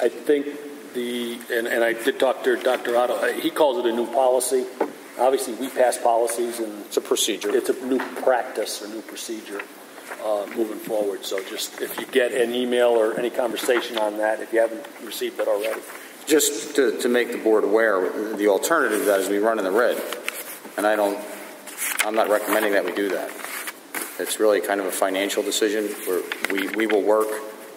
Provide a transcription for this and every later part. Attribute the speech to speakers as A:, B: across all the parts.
A: I think the, and, and I did talk to Dr. Otto, uh, he calls it a new policy. Obviously, we pass policies and
B: It's a procedure.
A: it's a new practice or new procedure uh, moving forward. So just if you get an email or any conversation on that, if you haven't received it already.
B: Just to, to make the board aware, the alternative to that is we run in the red. And I don't, I'm not recommending that we do that. It's really kind of a financial decision where we, we will work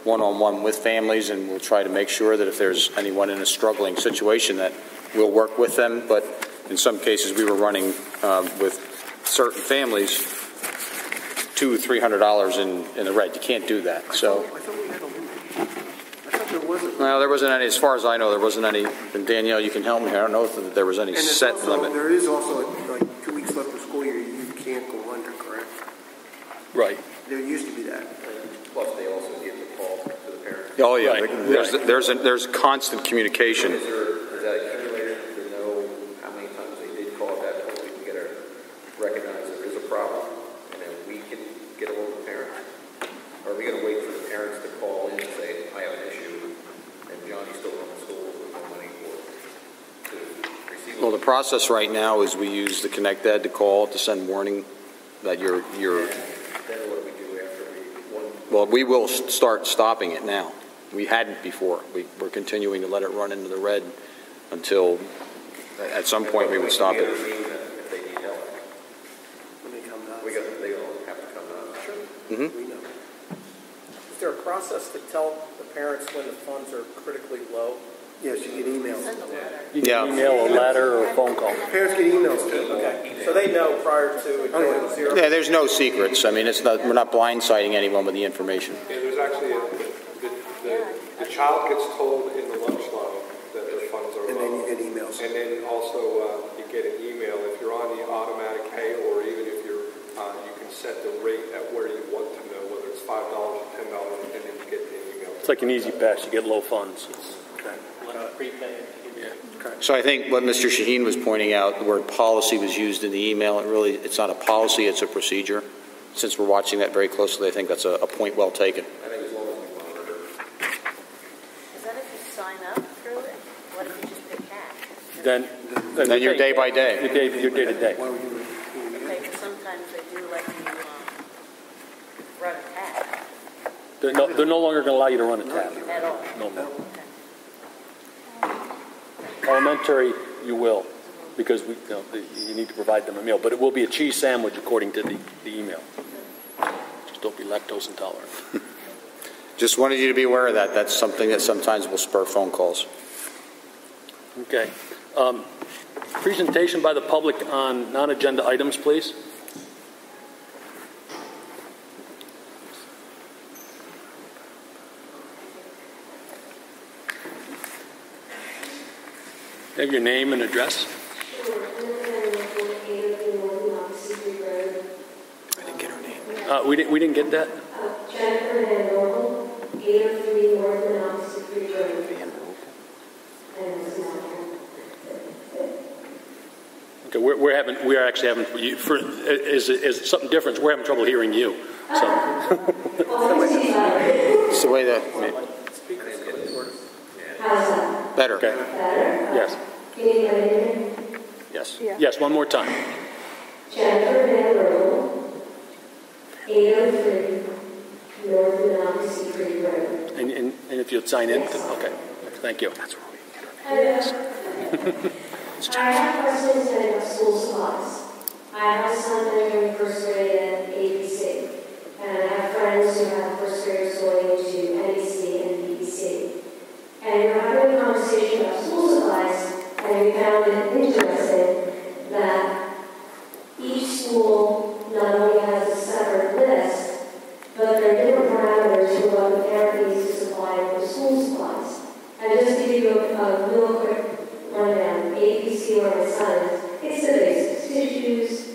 B: one-on-one with families and we'll try to make sure that if there's anyone in a struggling situation that we'll work with them. But in some cases, we were running um, with certain families, two, three hundred dollars in, in the red. You can't do that. So.
C: I thought we had a limit. I thought there wasn't.
B: No, there wasn't any, as far as I know, there wasn't any, and Danielle, you can help me, here. I don't know if there was any
C: And there's
B: set
C: also-
B: limit.
C: There is also, like, two weeks left of school year, you can't go under, correct?
A: Right.
C: There used to be that.
D: Plus, they also give the call to the parents.
B: Oh, yeah,
A: Right,
B: there's,
A: right.
B: there's, there's constant communication.
D: Is there, is that accumulated to know how many times they did call at that point? We can get a, recognize there is a problem, and then we can get a hold of the parents. Are we gonna wait for the parents to call in and say, I have an issue, and Johnny's still going to school with no money for, to receive?
B: Well, the process right now is we use the Connect Ed to call, to send warning that you're, you're,
D: Then what do we do after we, one,
B: well, we will s- start stopping it now. We hadn't before. We, we're continuing to let it run into the red until, at some point, we would stop it.
D: intervene if they need help?
C: When they come to us.
D: We got, they all have to come out. Sure.
B: Mhm.
C: We know.
E: Is there a process to tell the parents when the funds are critically low?
C: Yes, you get emails.
A: You can
B: Yeah.
A: email, a letter, or a phone call.
C: Parents get emails too. Oh,
E: Okay, so they know prior to it going to zero?
B: Yeah, there's no secrets. I mean, it's not, we're not blindsiding anyone with the information.
F: Yeah, there's actually, a- the, the, the child gets told in the lunch line that their funds are
C: And then you
F: low.
C: get emails.
F: And then also, uh, you get an email, if you're on the automatic pay, or even if you're, uh, you can set the rate at where you want to know, whether it's five dollars or ten dollars, and then you get the email.
A: It's like an easy pass, you get low funds.
B: So I think what Mr. Shaheen was pointing out, the word policy was used in the email. It really, it's not a policy, it's a procedure. Since we're watching that very closely, I think that's a, a point well taken.
D: I think as long as we monitor.
G: Is that if you sign up through it? What if you just pay cash?
A: Then.
B: And then you're day by
A: Your
B: day.
A: day, your day to day.
C: Why would you?
G: Okay, but sometimes they do let you, um, run a tab
A: They're no, they're no longer gonna allow you to run a tab.
G: at all.
A: No more.
G: Okay.
A: Elementary, you will, because we, you know, you need to provide them a meal, but it will be a cheese sandwich according to the, the email. Just don't be lactose intolerant.
B: Just wanted you to be aware of that. That's something that sometimes will spur phone calls.
A: Okay. Um, Presentation by the public on non-agenda items, please. Have your name and address.
B: I didn't get her name.
A: Uh, We didn't, we didn't get that?
H: Jennifer Van Roel, eight oh three North Manassas Creek Road. And it's not here.
A: Okay, we're, we're having, we are actually having, you- for, is, is it something different? We're having trouble hearing you. So,
B: It's the way that,
H: How's that?
B: better.
A: okay,
H: Better?
A: yes,
H: Can you let it in?
B: Yes.
A: yes, one more time.
H: Jennifer Van Roel, eight oh three North Manassas Creek Road.
A: And, and and if you'd sign in, okay, thank you.
H: I have questions about school supplies. I have a son entering first grade at ABC, and I have friends who have first graders going to NEC and BBC. And we we're having a conversation about school supplies, and we found it interesting that each school not only has a separate list, but there are different parameters for what the parent needs to supply for school supplies. And just to give you a, a real quick rundown, ABC on my sons, it's the basics, tissues, uh,